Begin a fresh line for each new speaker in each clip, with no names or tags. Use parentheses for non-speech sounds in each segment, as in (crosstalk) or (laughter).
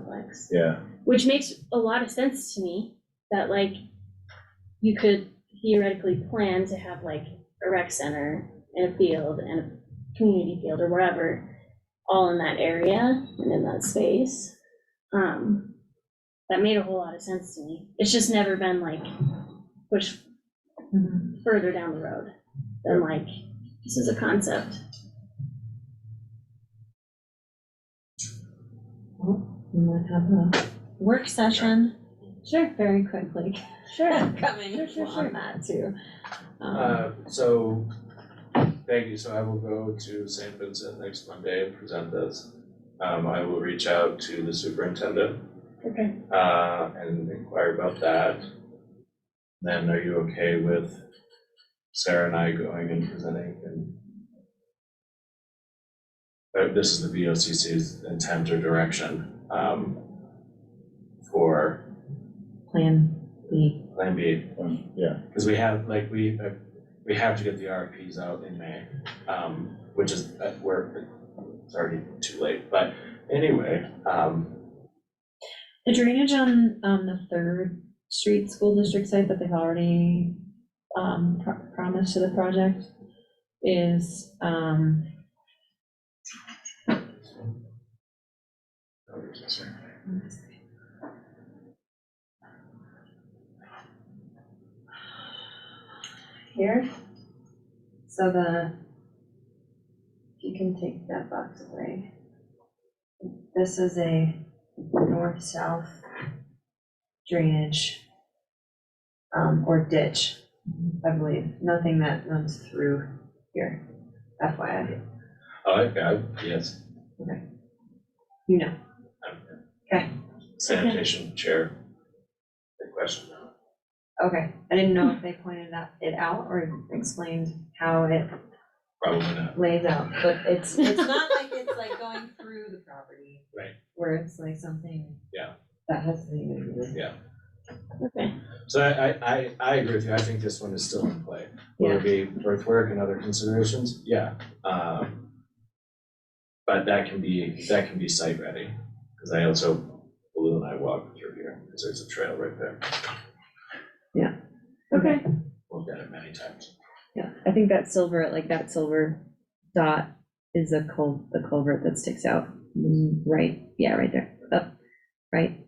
complex,
yeah,
which makes a lot of sense to me, that like, you could theoretically plan to have like a rec center and a field and a community field or whatever, all in that area and in that space. Um, that made a whole lot of sense to me. It's just never been like pushed further down the road than like, this is a concept.
We might have a work session
Sure,
very quickly
sure.
coming
Sure, sure, sure.
on that too. Um,
Uh, so, thank you, so I will go to St. Vincent next Monday and present this. Um, I will reach out to the superintendent,
Okay.
uh, and inquire about that. Then are you okay with Sarah and I going and presenting and? Uh, this is the VOCC's intent or direction, um, for
Plan B.
Plan B.
um, yeah,
Because we have, like, we, uh, we have to get the RFPs out in May, um, which is, uh, we're, it's already too late, but anyway, um,
The drainage on, on the third street school district site that they've already, um, pro- promised to the project is, um, here. So the, if you can take that box away. This is a north-south drainage um, or ditch, I believe. Nothing that runs through here, FYI,
oh, okay, I- yes,
you know.
sanitation chair. Good question.
Okay, I didn't know if they pointed that- it out or explained how it
Probably not,
lays out, but it's, it's not like it's like going through the property.
Right.
Where it's like something.
Yeah.
That has to do with.
Okay.
so I, I, I, I agree with you, I think this one is still in play. Will it be earthwork and other considerations? Yeah, um, but that can be, that can be site ready, because I also, Blue and I walked through here, because there's a trail right there.
Okay.
We've done it many times.
Yeah, I think that silver, like that silver dot is a cul, the culvert that sticks out, Mm, right, yeah, right there, up, right,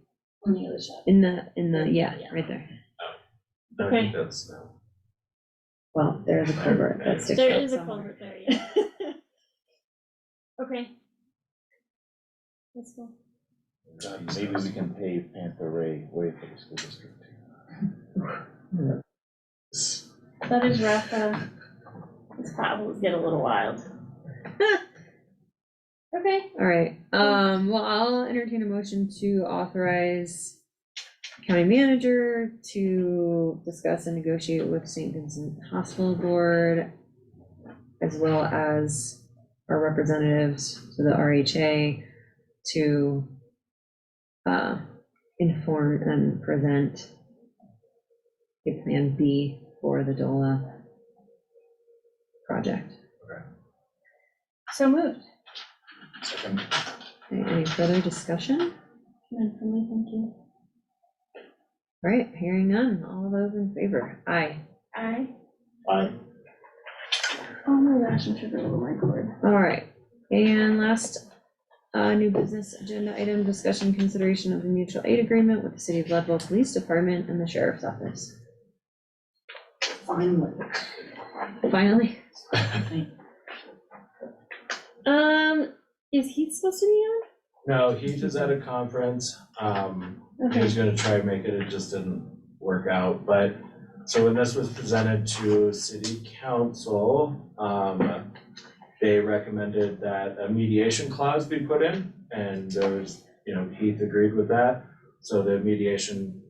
On the other side.
in the, in the, yeah, right there.
I think That's, uh,
Well, there is a culvert that sticks out
There is a
somewhere.
culvert there, yeah. (laughs) Okay. That's cool.
that's-
maybe we can pave Panther Ray way for the school district.
That is rough, though. These potholes get a little (laughs) wild. Okay,
All right, um, well, I'll entertain a motion to authorize county manager to discuss and negotiate with St. Vincent Hospital Board as well as our representatives to the RHA to uh, inform and present a plan B for the DOLA project.
so moved.
Second.
Okay, Any further discussion?
None for me, thank you.
All right, hearing none, all those in favor, aye.
I,
I,
oh my gosh, I'm tripping over my cord.
All right, and last, uh, new business agenda item, discussion consideration of the mutual aid agreement with the city of Leadville Police Department and the Sheriff's Office. Finally. Finally,
Um, is he supposed to be on?
No, he just at a conference, um, he
Okay,
was gonna try and make it, it just didn't work out, but, so when this was presented to city council, um, they recommended that a mediation clause be put in, and there was, you know, Heath agreed with that, so the mediation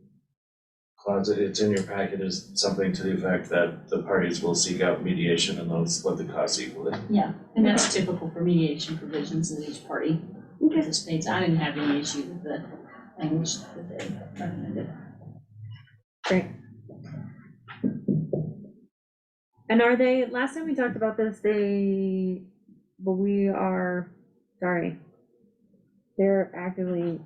clause, it's in your packet, is something to the effect that the parties will seek out mediation and they'll split the costs equally.
And that's typical for mediation provisions that each party
Okay.
participates. I didn't have any issue with the language that they uh, recommended.
and are they, last time we talked about this, they, but we are, sorry. They're actively